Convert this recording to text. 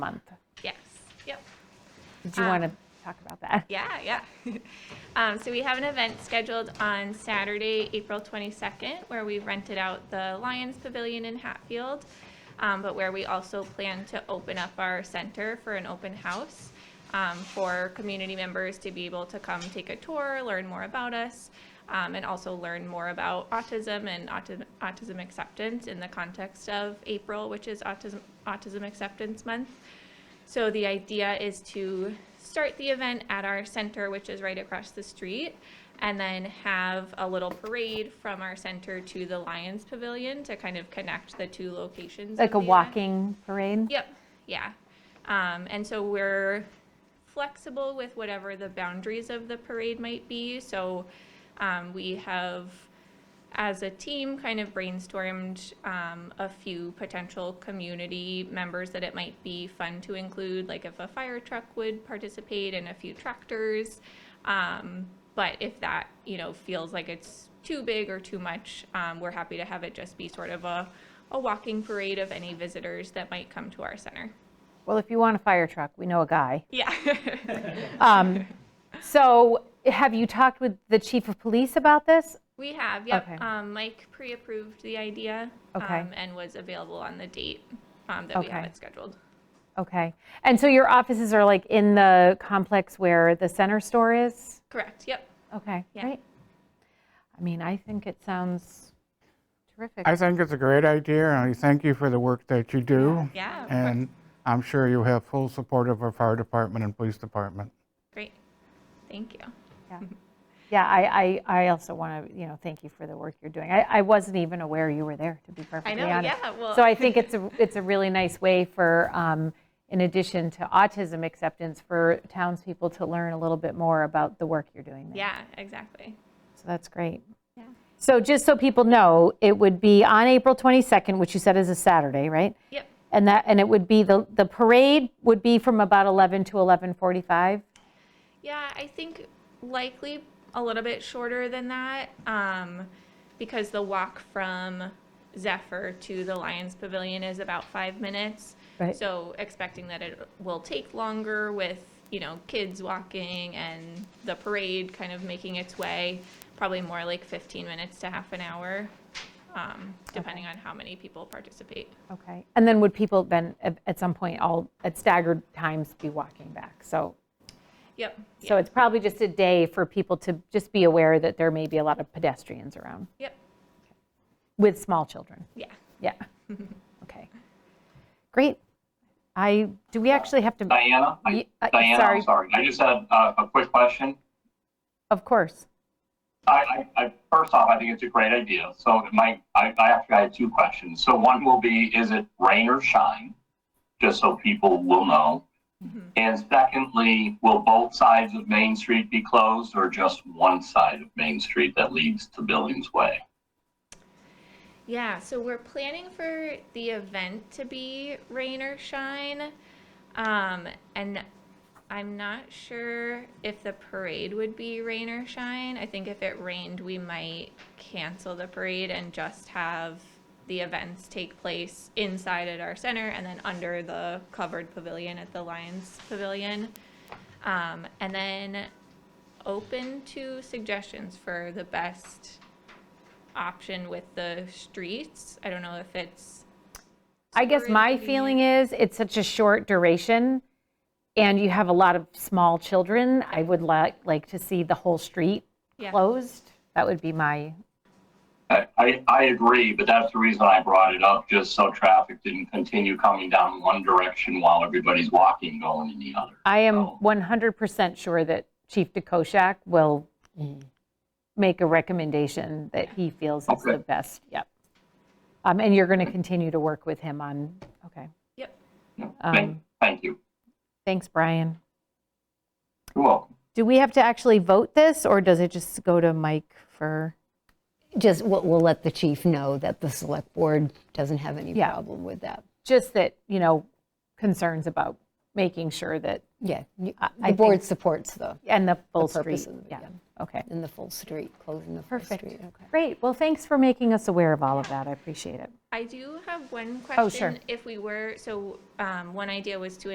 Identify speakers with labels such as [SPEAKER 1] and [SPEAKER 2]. [SPEAKER 1] month.
[SPEAKER 2] Yes, yep,
[SPEAKER 1] Did you
[SPEAKER 2] Um,
[SPEAKER 1] want to talk about that?
[SPEAKER 2] yeah, yeah. Um, so we have an event scheduled on Saturday, April twenty-second, where we rented out the Lions Pavilion in Hatfield, um, but where we also plan to open up our center for an open house, um, for community members to be able to come take a tour, learn more about us, um, and also learn more about autism and autism, autism acceptance in the context of April, which is Autism, Autism Acceptance Month. So the idea is to start the event at our center, which is right across the street, and then have a little parade from our center to the Lions Pavilion to kind of connect the two locations.
[SPEAKER 1] Like
[SPEAKER 2] of
[SPEAKER 1] a
[SPEAKER 2] the event.
[SPEAKER 1] walking parade?
[SPEAKER 2] Yep, yeah. Um, and so we're flexible with whatever the boundaries of the parade might be. So, um, we have, as a team, kind of brainstormed, um, a few potential community members that it might be fun to include, like if a fire truck would participate and a few tractors. Um, but if that, you know, feels like it's too big or too much, um, we're happy to have it just be sort of a, a walking parade of any visitors that might come to our center.
[SPEAKER 1] Well, if you want a fire truck, we know a guy.
[SPEAKER 2] Yeah.
[SPEAKER 1] Um, So have you talked with the chief of police about this?
[SPEAKER 2] we have, yep.
[SPEAKER 1] Okay.
[SPEAKER 2] Um, Mike pre approved the idea
[SPEAKER 1] Okay.
[SPEAKER 2] um, and was available on the date um, that we have
[SPEAKER 1] Okay.
[SPEAKER 2] it scheduled.
[SPEAKER 1] Okay. And so your offices are like in the complex where the center store is?
[SPEAKER 2] Correct, yep.
[SPEAKER 1] Okay,
[SPEAKER 2] Yeah.
[SPEAKER 1] great. I mean, I think it sounds terrific.
[SPEAKER 3] I think it's a great idea, and I thank you for the work that you do.
[SPEAKER 2] Yeah, of course.
[SPEAKER 3] And I'm sure you have full support of our fire department and police department.
[SPEAKER 2] Great. Thank you.
[SPEAKER 1] Yeah, Yeah, I, I, I also want to, you know, thank you for the work you're doing. I, I wasn't even aware you were there, to be perfectly
[SPEAKER 2] know,
[SPEAKER 1] honest.
[SPEAKER 2] yeah, well-
[SPEAKER 1] So I think it's a, it's a really nice way for, um, in addition to autism acceptance, for townspeople to learn a little bit more about the work you're doing there.
[SPEAKER 2] Yeah, exactly.
[SPEAKER 1] So that's great.
[SPEAKER 2] Yeah.
[SPEAKER 1] So just so people know, it would be on April 22nd, which you said is a Saturday, right?
[SPEAKER 2] Yep.
[SPEAKER 1] And that, and it would be, the, the parade would be from about 11 to 11:45?
[SPEAKER 2] Yeah, I think likely a little bit shorter than that, um, because the walk from Zephyr to the Lions Pavilion is about five minutes.
[SPEAKER 1] Right.
[SPEAKER 2] So expecting that it will take longer with, you know, kids walking and the parade kind of making its way, probably more like fifteen minutes to half an hour, um, depending on how many people participate.
[SPEAKER 1] Okay. And then would people then, at- at some point, all, at staggered times, be walking back? So,
[SPEAKER 2] Yep. yeah,
[SPEAKER 1] so it's probably just a day for people to just be aware that there may be a lot of pedestrians around
[SPEAKER 2] Yep,
[SPEAKER 1] with small children.
[SPEAKER 2] yeah.
[SPEAKER 1] Yeah. Okay. Great. I, do we actually have to?
[SPEAKER 4] Diana,
[SPEAKER 1] Ye-
[SPEAKER 4] I-
[SPEAKER 1] uh,
[SPEAKER 4] Diana,
[SPEAKER 1] sorry.
[SPEAKER 4] I'm sorry. I just had uh, a quick question.
[SPEAKER 1] Of course.
[SPEAKER 4] I, I, I, first off, I think it's a great idea. So my, I, I actually had two questions. So one will be, is it rain or shine? Just so people will know.
[SPEAKER 1] Mm-hmm.
[SPEAKER 4] And secondly, will both sides of Main Street be closed or just one side of Main Street that leads to Billings Way?
[SPEAKER 2] Yeah, so we're planning for the event to be rain or shine. Um, and I'm not sure if the parade would be rain or shine. I think if it rained, we might cancel the parade and just have the events take place inside at our center and then under the covered pavilion at the Lions Pavilion. Um, and then open to suggestions for the best option with the streets. I don't know if it's,
[SPEAKER 1] I guess
[SPEAKER 2] Super
[SPEAKER 1] my feeling is it's such a short duration and you have a lot of small children. I would like, like to see the whole street
[SPEAKER 2] Yeah.
[SPEAKER 1] closed. That would be my,
[SPEAKER 4] I, I, I agree, but that's the reason I brought it up, just so traffic didn't continue coming down one direction while everybody's walking going in the other.
[SPEAKER 1] I am
[SPEAKER 4] Oh.
[SPEAKER 1] 100% sure that Chief DeKoschak will make a recommendation that he feels is
[SPEAKER 4] Okay.
[SPEAKER 1] the best, yep. Um, And you're going to continue to work with him on, okay.
[SPEAKER 2] yep,
[SPEAKER 4] Thank,
[SPEAKER 1] Um,
[SPEAKER 4] thank you.
[SPEAKER 1] Thanks, Brian.
[SPEAKER 4] You're welcome.
[SPEAKER 1] Do we have to actually vote this or does it just go to Mike for?
[SPEAKER 5] Just, we'll, we'll let the chief know that the select board doesn't have any
[SPEAKER 1] Yeah.
[SPEAKER 5] problem with that.
[SPEAKER 1] just that, you know, concerns about making sure that,
[SPEAKER 5] Yeah, you-
[SPEAKER 1] I
[SPEAKER 5] the
[SPEAKER 1] think-
[SPEAKER 5] board supports the,
[SPEAKER 1] and the full
[SPEAKER 5] purpose
[SPEAKER 1] street.
[SPEAKER 5] of it,
[SPEAKER 1] Yeah,
[SPEAKER 5] yeah.
[SPEAKER 1] okay.
[SPEAKER 5] in the full street, closing the full street.
[SPEAKER 1] Perfect.
[SPEAKER 5] okay.
[SPEAKER 1] Great. Well, thanks for making us aware of all of that. I appreciate it.
[SPEAKER 2] I do have one question.
[SPEAKER 1] Oh, sure.
[SPEAKER 2] If we were, so um, one idea was to